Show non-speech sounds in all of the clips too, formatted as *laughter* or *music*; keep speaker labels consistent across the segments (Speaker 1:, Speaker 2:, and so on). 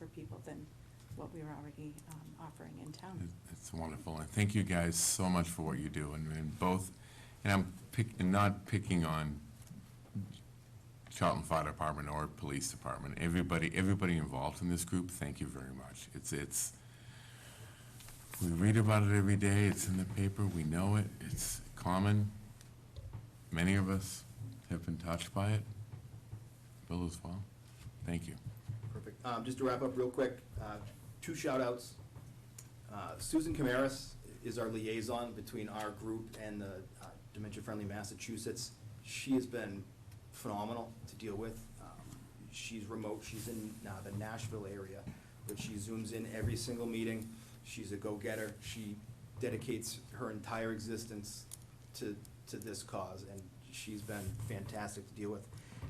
Speaker 1: affordable than what we were already um, offering in town.
Speaker 2: It- It's wonderful, and thank you guys so much for what you do, and, and both, and I'm pick, and not picking on Charlton Fire Department or Police Department, everybody, everybody involved in this group, thank you very much. It's, it's, we read about it every day, it's in the paper, we know it, it's common. Many of us have been touched by it, Bill as well, thank you.
Speaker 3: Perfect. Um, Just to wrap up real quick, uh, two shout-outs. Uh, Susan Camaris is our liaison between our group and the uh, Dementia Friendly Massachusetts. She has been phenomenal to deal with. Um, She's remote, she's in uh, the Nashville area, but she zooms in every single meeting. She's a go-getter. She dedicates her entire existence to, to this cause, and she's been fantastic to deal with.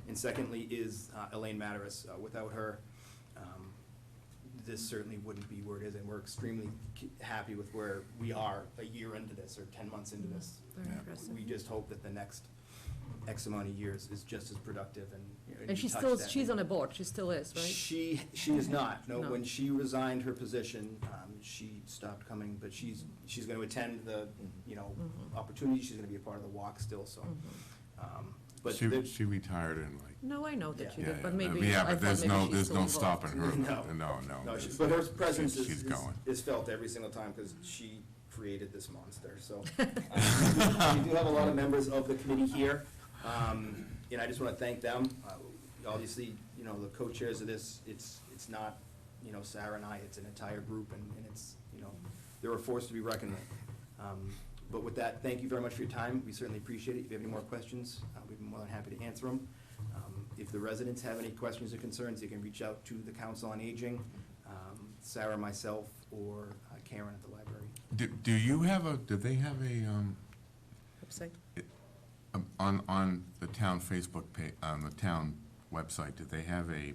Speaker 3: And secondly is uh, Elaine Mataris. Uh, Without her, um, this certainly wouldn't be where it is, and we're extremely ki- happy with where we are a year into this, or ten months into this.
Speaker 4: Very
Speaker 2: Yeah.
Speaker 4: impressive.
Speaker 3: We just hope that the next X amount of years is just as productive and.
Speaker 4: And
Speaker 3: you
Speaker 4: she's
Speaker 3: touched
Speaker 4: still,
Speaker 3: that.
Speaker 4: she's on a board, she still is, right?
Speaker 3: She, she is not. No,
Speaker 4: No.
Speaker 3: when she resigned her position, um, she stopped coming, but she's, she's gonna attend the, you know,
Speaker 4: Mhm.
Speaker 3: opportunity. She's gonna be a part of the walk still, so.
Speaker 4: Mm-hmm.
Speaker 3: um, But
Speaker 2: She,
Speaker 3: there-
Speaker 2: she retired in like
Speaker 4: No, I know that you
Speaker 3: Yeah,
Speaker 2: Yeah,
Speaker 4: did, but
Speaker 2: yeah,
Speaker 4: maybe,
Speaker 2: Yeah,
Speaker 4: I
Speaker 2: but
Speaker 4: thought
Speaker 2: there's
Speaker 4: maybe
Speaker 2: no,
Speaker 4: she's
Speaker 2: there's
Speaker 4: still
Speaker 2: no
Speaker 4: involved.
Speaker 2: stopping her.
Speaker 3: No.
Speaker 2: No, no.
Speaker 3: No, she-
Speaker 2: there's-
Speaker 3: but her presence
Speaker 2: she's-
Speaker 3: is,
Speaker 2: She's
Speaker 3: is-
Speaker 2: going.
Speaker 3: is felt every single time, because she created this monster,
Speaker 2: *laughs*
Speaker 3: so. um, *laughs* We do have a lot of members of the committee here, um, and I just want to thank them. Uh, Obviously, you know, the co-chairs of this, it's, it's not, you know, Sarah and I, it's an entire group, and, and it's, you know, they're a force to be reckoned with. Um, But with that, thank you very much for your time, we certainly appreciate it. If you have any more questions, uh, we'd be more than happy to answer them. Um, If the residents have any questions or concerns, they can reach out to the Council on Aging, um, Sarah, myself, or uh, Karen at the library.
Speaker 2: Do, do you have a, do they have a, um,
Speaker 4: Website.
Speaker 2: um, on, on the town Facebook pa, on the town website, do they have a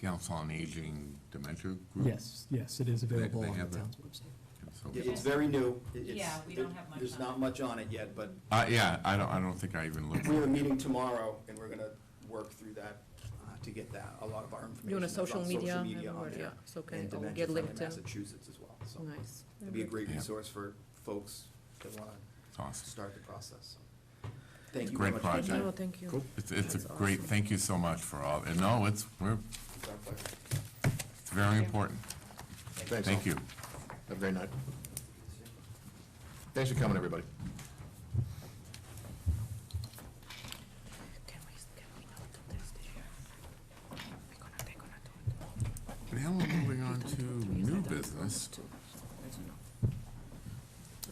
Speaker 2: Council on Aging Dementia Group?
Speaker 5: Yes, yes, it is available
Speaker 2: Hmm. they
Speaker 5: on
Speaker 2: have
Speaker 5: the
Speaker 2: that.
Speaker 5: town's website.
Speaker 2: And so-
Speaker 3: It- It's very new. It- it's-
Speaker 6: Yeah, we don't have much
Speaker 3: There's
Speaker 6: on
Speaker 3: not
Speaker 6: it.
Speaker 3: much on it yet, but
Speaker 2: Uh, yeah, I don't, I don't think I even looked.
Speaker 3: we have a meeting tomorrow, and we're gonna work through that uh, to get that, a lot of our information.
Speaker 4: You want a
Speaker 3: that's on
Speaker 4: social media?
Speaker 3: on
Speaker 4: everywhere,
Speaker 3: there,
Speaker 4: Yeah, so can,
Speaker 3: And
Speaker 4: it'll
Speaker 3: Dementia
Speaker 4: get
Speaker 3: Friendly
Speaker 4: linked to,
Speaker 3: Massachusetts as well, so
Speaker 4: nice.
Speaker 3: it'd be a great
Speaker 2: Yeah.
Speaker 3: resource for folks that wanna
Speaker 2: It's awesome.
Speaker 3: start the process, so. Thank you
Speaker 2: Great
Speaker 3: very much.
Speaker 2: project.
Speaker 4: No, thank you.
Speaker 2: It's, it's a
Speaker 4: That's
Speaker 2: great,
Speaker 4: awesome.
Speaker 2: thank you so much for all, and no, it's, we're,
Speaker 3: It's our pleasure.
Speaker 2: it's very
Speaker 1: you.
Speaker 2: important.
Speaker 7: Thanks.
Speaker 2: Thank
Speaker 7: all.
Speaker 2: you.
Speaker 7: Have a great night. Thanks for coming, everybody.
Speaker 4: Can we, can we not do this this year? We're gonna, we're gonna do
Speaker 2: Now
Speaker 4: it.
Speaker 2: we're moving on
Speaker 4: Done
Speaker 2: to
Speaker 4: two or three
Speaker 2: new
Speaker 4: years, I done two,
Speaker 2: business.
Speaker 4: two, so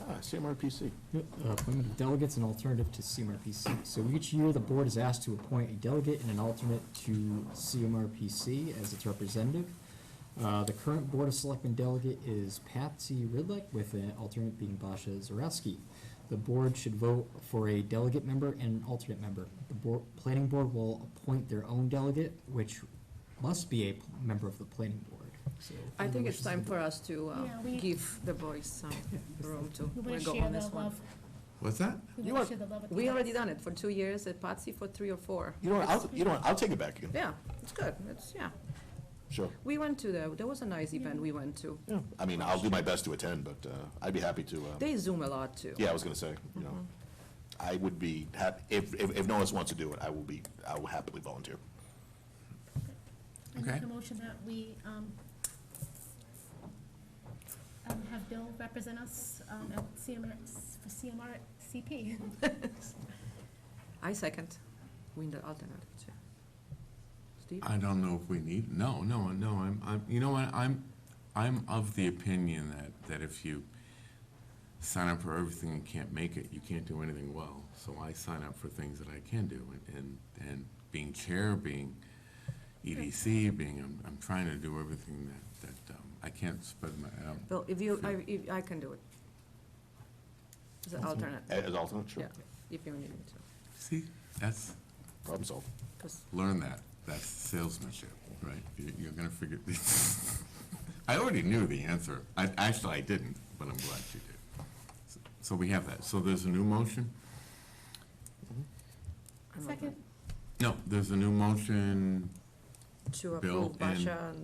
Speaker 4: that's enough.
Speaker 7: Ah, CMRPC.
Speaker 5: Uh, Appointment of delegates and alternative to CMRPC. So each year, the board is asked to appoint a delegate and an alternate to CMRPC as its representative. Uh, The current Board of Selectmen delegate is Patsy Ridlick, with an alternate being Basha Zarowski. The board should vote for a delegate member and an alternate member. The board, planning board will appoint their own delegate, which must be a p- member of the planning board. So,
Speaker 4: I think it's
Speaker 5: wishes of
Speaker 4: time
Speaker 5: the
Speaker 4: for us to uh,
Speaker 6: Yeah, we-
Speaker 4: give the boys some
Speaker 6: *laughs*
Speaker 4: room to
Speaker 6: We wanna
Speaker 4: go
Speaker 6: share
Speaker 4: on
Speaker 6: the
Speaker 4: this one.
Speaker 6: love.
Speaker 2: What's that?
Speaker 6: We
Speaker 4: You
Speaker 6: wanna
Speaker 4: are-
Speaker 6: share the love with the
Speaker 4: We
Speaker 6: others.
Speaker 4: already done it for two years, at Patsy for three or four.
Speaker 7: You know what, I'll, you know what, I'll take it back again.
Speaker 4: Yeah, it's good, it's, yeah.
Speaker 7: Sure.
Speaker 4: We went to, the. there was a nice event we went to.
Speaker 7: Yeah, I mean, I'll do my best to attend, but uh, I'd be happy to, uh,
Speaker 4: They Mm-hmm. Zoom a lot, too.
Speaker 7: yeah, I was gonna say, you know, I would be hap, if, if, if no one else wants to do it, I will be, I will happily volunteer.
Speaker 6: I make
Speaker 2: Okay.
Speaker 6: a motion that we, um, um, have Bill represent us, um, at CMR, for CMR CP.
Speaker 4: *laughs* I second. We in the alternative, too. Steve?
Speaker 2: I don't know if we need, no, no, no, I'm, I'm, you know what, I'm, I'm of the opinion that, that if you sign up for everything and can't make it, you can't do anything well. So I sign up for things that I can do, and, and, and being chair, being EDC, being, I'm, I'm trying to do everything that, that, um, I can't spread my, um,
Speaker 4: Well, if you, I, if, I can do it. As an alternate,
Speaker 7: A- As alternate,
Speaker 4: yeah,
Speaker 7: sure,
Speaker 4: if you need me to,
Speaker 2: see, that's,
Speaker 7: problem solved.
Speaker 4: 'cause-
Speaker 2: learn that, that's salesmanship, right? You're, you're gonna figure, *laughs* I already knew the answer, I, actually, I didn't, but I'm glad you did. So we have that, so there's a new motion?
Speaker 4: I'm not
Speaker 6: Second.
Speaker 2: No, there's a new motion,
Speaker 4: to
Speaker 2: Bill
Speaker 4: approve
Speaker 2: and-
Speaker 4: Basha and